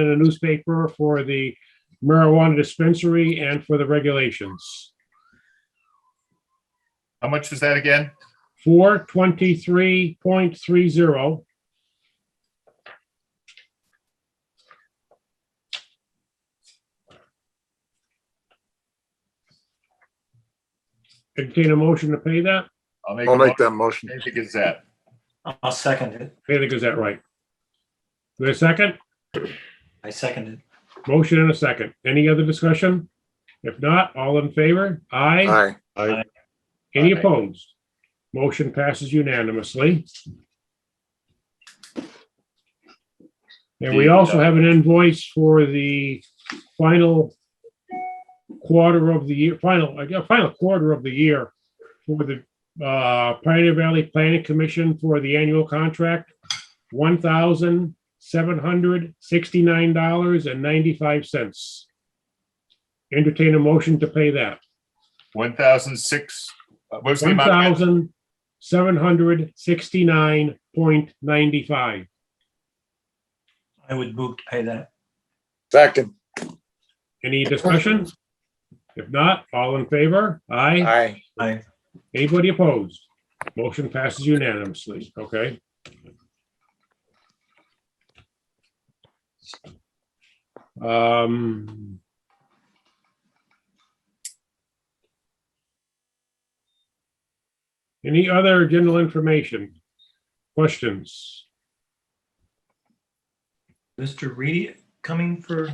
in the newspaper for the marijuana dispensary and for the regulations. How much was that again? Four twenty-three point three zero. Entertain a motion to pay that? make. a I'll make motion that motion. to pay The Gazette. I'll second it. Pay the Gazette right. Wait a second? I second it. Motion and a second. Any other discussion? If not, all in favor? Aye. Aye. Any Aye. opposed? Motion passes unanimously. And we The, also uh, have an invoice for the final quarter of the year, final, I guess, final quarter of the year for the uh, Pioneer Valley Planning Commission for the annual contract, one thousand seven hundred sixty-nine dollars and ninety-five cents. Entertain a motion to pay that. One thousand six, uh, what was the One amount? again? thousand seven hundred sixty-nine point ninety-five. I would move to pay that. Second. Any discussion? If not, all in favor? Aye. Aye. I, Anybody opposed? Motion passes unanimously. Okay. Um. Any other general information? Questions? Mr. Reedy coming for,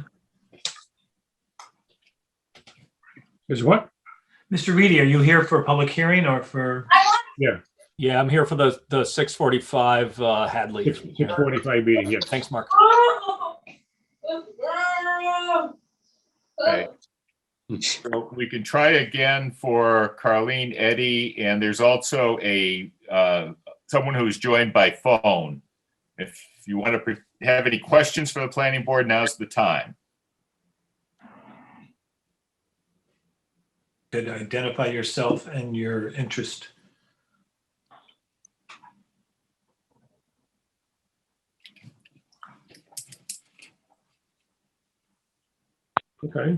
Is what? Mr. Reedy, are you here for a public hearing or for, Yeah, I'm here for the, the six forty-five uh, Hadley. Six forty-five meeting, yes. Thanks, Mark. Okay. So We can try again for Carlene Eddy, and there's also a, uh, someone who's joined by phone. If you want to pre- have any questions for the planning board, now's the time. could identify yourself and your interest? Okay,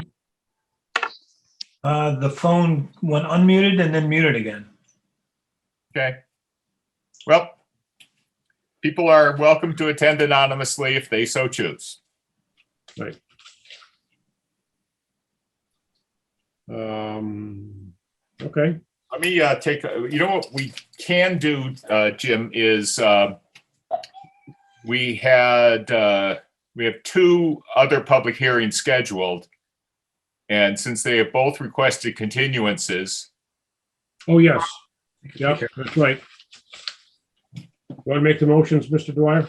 Uh, the phone went unmuted and then muted again. Okay. Well, people are welcome to attend anonymously if they so choose. um, okay, Let me uh, take, you know what we can do, uh, Jim, is uh, we had, uh, we have two other public hearings scheduled. And since they have both requested continuances, oh, yes, yeah, that's right. Want to make the motions, Mr. Dwyer?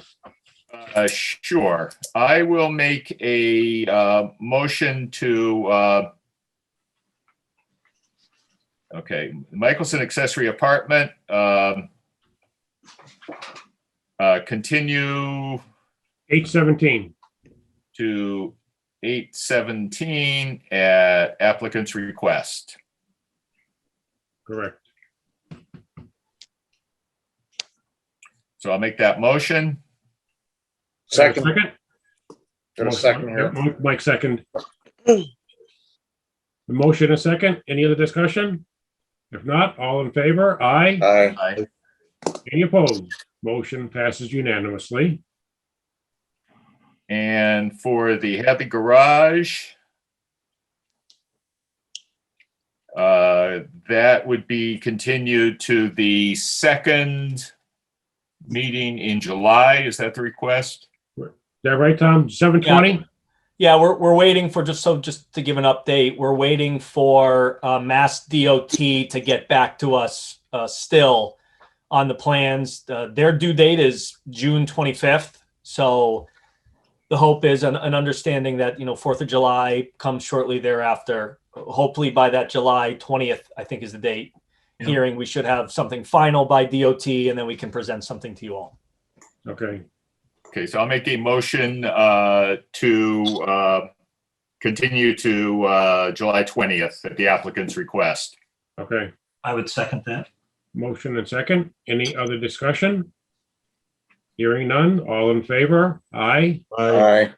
uh, sure, I will make a uh, motion to uh, okay, Michelson accessory apartment, um, uh, continue Eight seventeen, to eight seventeen at applicant's request. correct. So I'll make that motion. Second. Second? Got a second here. Yeah, Mike- Mike second. The Motion a second, any other discussion? If not, all in favor, aye, Aye. any opposed? Motion passes unanimously. And for the Hadley Garage, uh, that would be continued to the second meeting in July. Is that the request? Is that right, Tom? Seven twenty? Yeah, we're, we're waiting for, just so, just to give an update, we're waiting for uh, Mass DOT to get back to us uh, still on the plans. Uh, Their due date is June twenty-fifth, so the hope is an, an understanding that, you know, Fourth of July comes shortly thereafter. Hopefully by that July twentieth, I think is the date, Yeah. hearing, we should have something final by DOT, and then we can present something to you all. Okay, Okay, so I'll make a motion uh, to uh, continue to uh, July 20th at the applicant's request. okay. I would second that. Motion and second. Any other discussion? Hearing none. All in favor? Aye. Aye.